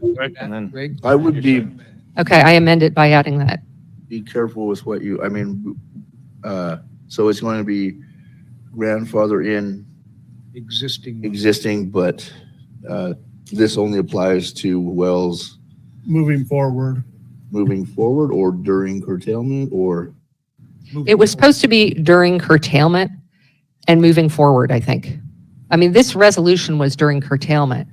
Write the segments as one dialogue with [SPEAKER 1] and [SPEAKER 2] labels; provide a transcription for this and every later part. [SPEAKER 1] would-
[SPEAKER 2] and then
[SPEAKER 3] Greg?
[SPEAKER 1] I would be,
[SPEAKER 4] Okay, I amend it by adding that.
[SPEAKER 1] be careful with what you, I mean, uh, so it's going to be grandfather in
[SPEAKER 3] Existing.
[SPEAKER 1] existing, but, uh, this only applies to wells
[SPEAKER 5] moving forward.
[SPEAKER 1] moving forward or during curtailment or,
[SPEAKER 4] It was supposed to be during curtailment and moving forward, I think. I mean, this resolution was during curtailment.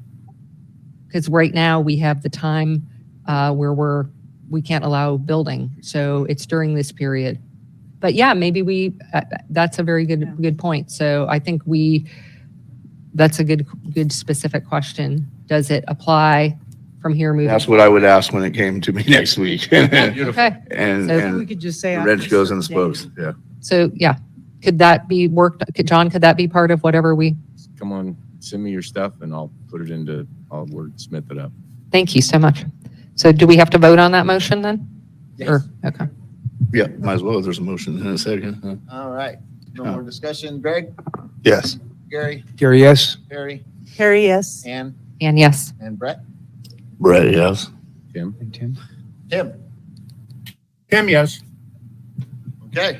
[SPEAKER 4] Because right now, we have the time uh, where we're, we can't allow building, so it's during this period. But yeah, maybe we, uh, that's a very good, good point. So I think we, that's a good, good specific question. Does it apply from here moving?
[SPEAKER 1] that's what I would ask when it came to me next week. And,
[SPEAKER 4] Okay, So-
[SPEAKER 6] We
[SPEAKER 1] and
[SPEAKER 6] could just say.
[SPEAKER 1] the
[SPEAKER 6] on
[SPEAKER 1] wrench goes in the
[SPEAKER 6] certain days.
[SPEAKER 1] spokes, yeah.
[SPEAKER 4] so yeah, could that be worked, could- John, could that be part of whatever we?
[SPEAKER 2] come on, send me your stuff and I'll put it into, I'll wordsmith it up.
[SPEAKER 4] Thank you so much. So do we have to vote on that motion then? Or- Okay.
[SPEAKER 1] Yeah, might as well if there's a motion in a second. huh?
[SPEAKER 7] All right, no more discussion. Greg,
[SPEAKER 1] Yes.
[SPEAKER 7] Gary,
[SPEAKER 3] Gary, yes?
[SPEAKER 7] Harry,
[SPEAKER 6] Harry, yes.
[SPEAKER 7] Ann,
[SPEAKER 4] And yes,
[SPEAKER 7] and Brett.
[SPEAKER 1] Brett, yes.
[SPEAKER 3] And Tim?
[SPEAKER 7] Tim,
[SPEAKER 5] Tim, yes.
[SPEAKER 7] okay.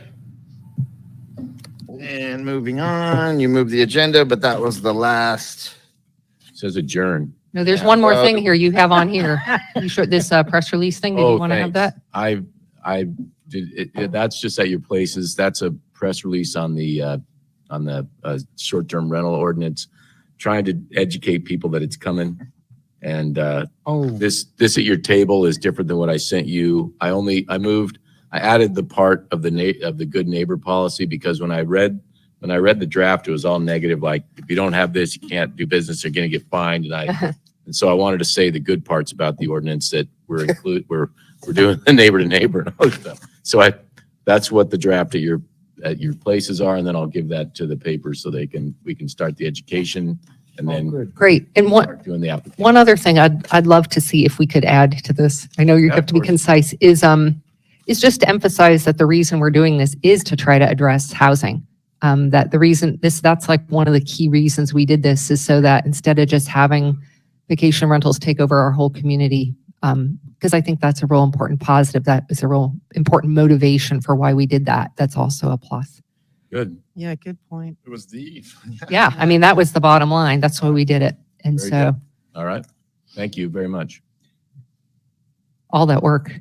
[SPEAKER 7] And moving on, you moved the agenda, but that was the last.
[SPEAKER 2] Says adjourn.
[SPEAKER 4] no, there's
[SPEAKER 7] Yeah,
[SPEAKER 4] one more
[SPEAKER 7] well-
[SPEAKER 4] thing here you have on here. You sure, this uh, press release thing, did
[SPEAKER 2] Oh,
[SPEAKER 4] you want to have
[SPEAKER 2] thanks.
[SPEAKER 4] that?
[SPEAKER 2] I, I did, it- it, that's just at your places. That's a press release on the, uh, on the, uh, short-term rental ordinance, trying to educate people that it's coming. And, uh,
[SPEAKER 3] Oh,
[SPEAKER 2] this, this at your table is different than what I sent you. I only, I moved, I added the part of the na, of the good neighbor policy because when I read, when I read the draft, it was all negative, like, if you don't have this, you can't do business, you're gonna get fined, and I, and so I wanted to say the good parts about the ordinance that we're include, we're, we're doing the neighbor to neighbor and all that stuff. So I, that's what the draft at your, at your places are, and then I'll give that to the paper so they can, we can start the education and
[SPEAKER 3] oh,
[SPEAKER 2] then
[SPEAKER 3] good.
[SPEAKER 4] Great. And one,
[SPEAKER 2] start doing the application.
[SPEAKER 4] one other thing I'd, I'd love to see if we could add to this, I know you
[SPEAKER 2] Yeah,
[SPEAKER 4] have
[SPEAKER 2] of
[SPEAKER 4] to be
[SPEAKER 2] course.
[SPEAKER 4] concise, is, um, is just to emphasize that the reason we're doing this is to try to address housing. Um, that the reason, this, that's like one of the key reasons we did this is so that instead of just having vacation rentals take over our whole community, um, because I think that's a real important positive, that is a real important motivation for why we did that. That's also a plus.
[SPEAKER 2] Good.
[SPEAKER 6] Yeah, good point.
[SPEAKER 7] It was the eve.
[SPEAKER 4] Yeah, I mean, that was the bottom line. That's why we did it. And
[SPEAKER 2] Very
[SPEAKER 4] so,
[SPEAKER 2] All right. Thank you very much.
[SPEAKER 4] all that work.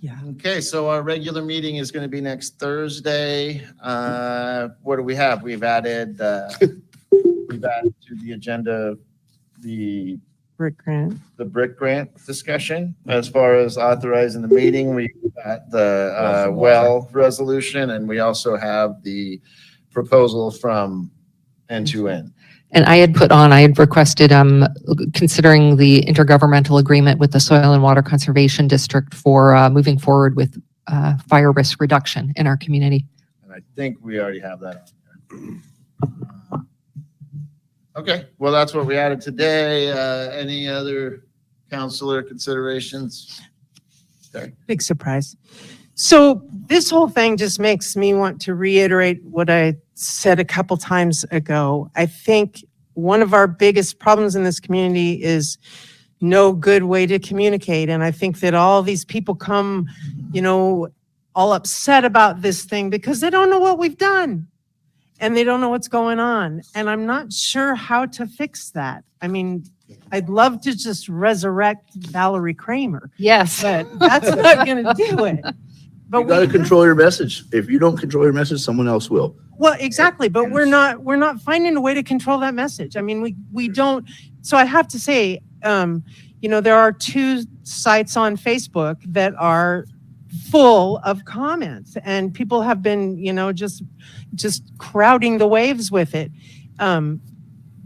[SPEAKER 6] Yeah.
[SPEAKER 7] Okay, so our regular meeting is going to be next Thursday. Uh, What do we have? We've added, uh, we've added to the agenda, the
[SPEAKER 6] Rick Grant.
[SPEAKER 7] the brick grant discussion as far as authorizing the meeting. We got the uh, well resolution and we also have the proposal from end to end.
[SPEAKER 4] And I had put on, I had requested, um, considering the intergovernmental agreement with the Soil and Water Conservation District for, uh, moving forward with, uh, fire risk reduction in our community.
[SPEAKER 7] And I think we already have that. on there. Uh, Okay, well, that's what we added today. Uh, Any other counselor considerations?
[SPEAKER 6] Big surprise. So this whole thing just makes me want to reiterate what I said a couple times ago. I think one of our biggest problems in this community is no good way to communicate. And I think that all these people come, you know, all upset about this thing because they don't know what we've done and they don't know what's going on. And I'm not sure how to fix that. I mean, I'd love to just resurrect Valerie Kramer
[SPEAKER 4] Yes.
[SPEAKER 6] but that's not going to do it. But
[SPEAKER 1] You gotta
[SPEAKER 6] we,
[SPEAKER 1] control your message. If you don't control your message, someone else will.
[SPEAKER 6] well, exactly. But we're not we're not finding a way to control that message. I mean, we we don't. So I have to say, um, you know, there are two sites on Facebook that are full of comments, and people have been, you know, just just crowding the waves with it. Um,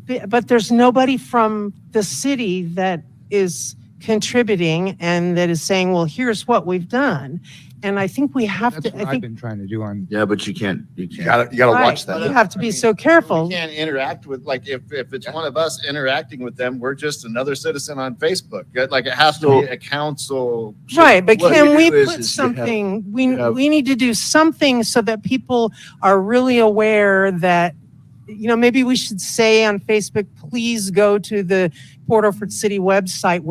[SPEAKER 6] b- but there's nobody from the city that is contributing and that is saying, well, here's what we've done. And I think we have
[SPEAKER 3] That's
[SPEAKER 6] to.
[SPEAKER 3] what
[SPEAKER 6] I
[SPEAKER 3] I've
[SPEAKER 6] think
[SPEAKER 3] been trying to do on,
[SPEAKER 1] Yeah, but you can't, you
[SPEAKER 7] You
[SPEAKER 1] can't.
[SPEAKER 7] gotta,
[SPEAKER 1] you gotta
[SPEAKER 6] Right. watch
[SPEAKER 7] that.
[SPEAKER 6] You have to be so
[SPEAKER 7] We
[SPEAKER 6] careful.
[SPEAKER 7] can't interact with, like, if, if it's one of us interacting with them, we're just another citizen on Facebook. Like, it has to be a council.
[SPEAKER 6] Right, but
[SPEAKER 1] What
[SPEAKER 6] can
[SPEAKER 1] you
[SPEAKER 6] we
[SPEAKER 1] do is-
[SPEAKER 6] put
[SPEAKER 1] is you have-
[SPEAKER 6] something, we,
[SPEAKER 1] you have-
[SPEAKER 6] we need to do something so that people are really aware that, you know, maybe we should say on Facebook, please go to the Port Orford City website